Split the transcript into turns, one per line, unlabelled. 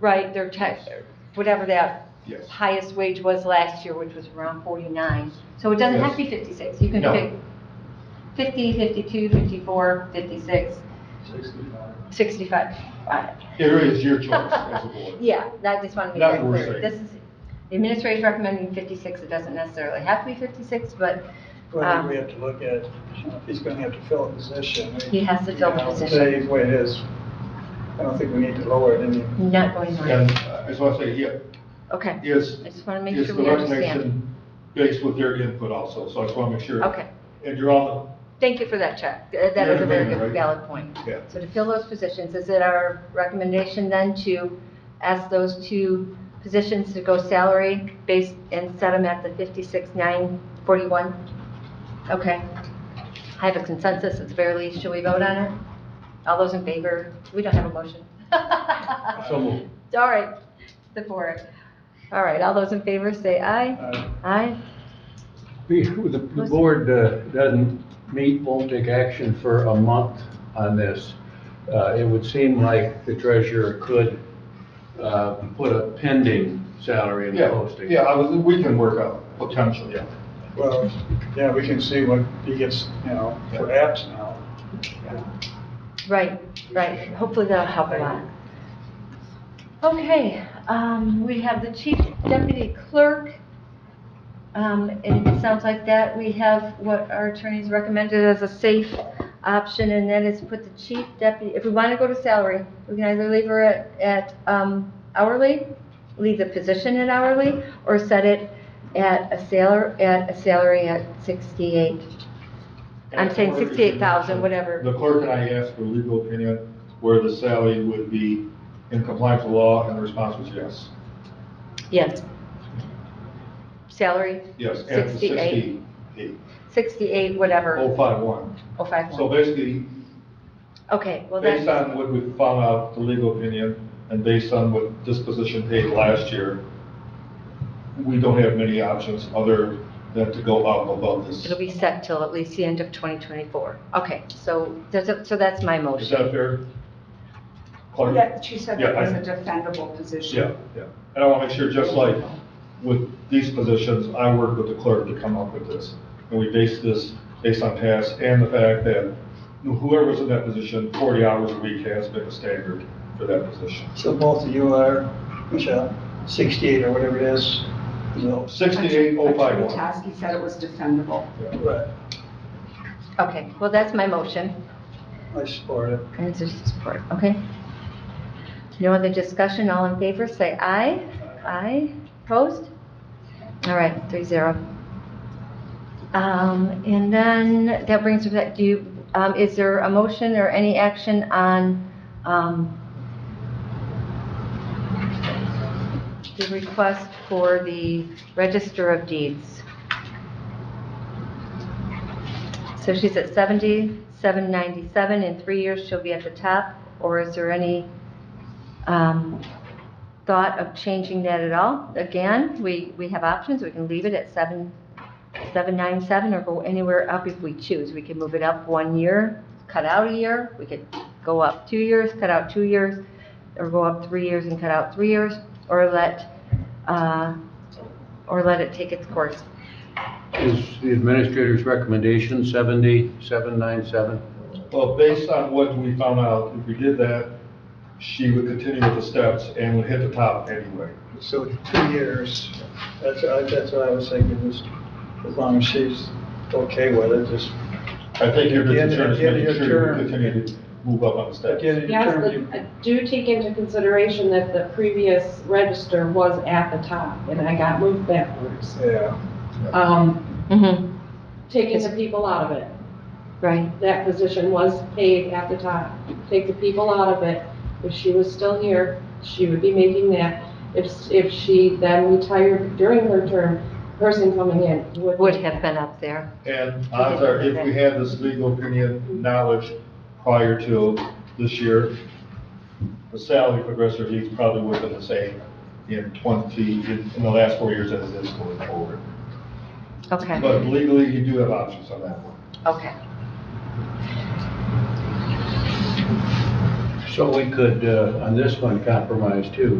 right, their tax, whatever that
Yes.
highest wage was last year, which was around 49. So it doesn't have to be 56. You can
No.
pick 50, 52, 54, 56, 65. Uh,
It really is your choice as a board.
Yeah, that just wanted to be
That's
very
what we're
clear.
saying.
This is, the administrator's recommending 56. It doesn't necessarily have to be 56, but
Well, I
Um,
think we have to look at, you know, if he's gonna have to fill a position. we-
He has to fill a
you know,
position.
Say what it is. I don't think we need to lower it any.
not going
And
on.
uh, as I say, yeah,
Okay.
is.
I just wanna make
is
sure
the
we understand.
recommendation Based with their input also, so I just want to make sure.
Okay.
And you're on
Thank you for that check. Uh, That
You're
is a very
agreeing,
good
right?
valid point.
Yeah.
So to fill those positions, is it our recommendation then to ask those two positions to go salary based and set them at the 56,941? Okay. I have a consensus, it's barely, should we vote on it? All those in favor? We don't have a motion.
the, so moved.
All right, the four. All right, all those in favor say aye.
uh,
Aye.
We- The the board uh, doesn't meet, won't take action for a month on this. Uh, It would seem like the treasurer could uh, put a pending salary in the
Yeah,
posting.
yeah, I was, we can work out potential, yeah.
Well, yeah, we can see what he gets, you know, for apps now.
Right, right. Hopefully that'll help a lot. Okay, um, we have the chief deputy clerk. Um, and it sounds like that we have what our attorneys recommended as a safe option, and that is put the chief deputy, if we want to go to salary, we can either leave her at, at, um, hourly, leave the position at hourly, or set it at a salar, at a salary at sixty-eight. I'm saying
And the clerk is-
68,000, whatever.
The clerk and I asked for legal opinion where the salary would be in compliance with law, and the response was yes.
Yes. Salary?
Yes, and
68.
sixty-eight,
68, whatever,
oh five one.
oh five
So
one.
basically,
Okay, well,
Based
that's,
on what we found out, the legal opinion, and based on what this position paid last year, we don't have many options other than to go up above this.
it'll be set till at least the end of 2024. Okay, so, there's a- so that's my
Is
motion.
that fair? Clark?
Yeah, she said
Yeah,
it was
I-
a defendable position.
Yeah, yeah. And I want to make sure, just like with these positions, I work with the clerk to come up with this. And we base this based on past and the fact that whoever's in that position, 40 hours a week has been the standard for that position.
So both of you are, Michelle, sixty-eight or whatever it is, you know.
68051.
Attorney Toski said it was defendable.
Right,
Okay, well, that's my motion.
I support it.
And there's support, okay? No other discussion, all in favor, say aye. Aye, opposed? All right, three zero. Um, and then that brings us back, do you, um, is there a motion or any action on, um, the request for the register of deeds? So she's at 70, 797, in three years she'll be at the top, or is there any um, thought of changing that at all? Again, we, we have options, we can leave it at 7, 797, or go anywhere up if we choose. We can move it up one year, cut out a year, we could go up two years, cut out two years, or go up three years and cut out three years, or let, uh, or let it take its course.
Is the administrator's recommendation 7797?
Well, based on what we found out, if we did that, she would continue with the steps and would hit the top anyway.
So two years, that's, I- that's what I was thinking, is as long as she's okay with it, just
I think your
At the end-
concern is
at the end of
making
your
sure you
term.
continue to move up on the
at
steps.
the end of your
Yes,
term, you-
but I do take into consideration that the previous register was at the top, and I got moved backwards.
Yeah,
Um,
Mm-hmm.
taking the people out of it,
Right,
that position was paid at the top. Take the people out of it, if she was still here, she would be making that. If, if she then retired during her term, person coming in would.
would have been up there.
And odds are, if we had this legal opinion knowledge prior to this year, the salary for Dresser Heath probably would have been the same in twenty, in in the last four years as it is going forward.
Okay.
But legally, you do have options on that one.
Okay.
So we could, uh, on this one, compromise too.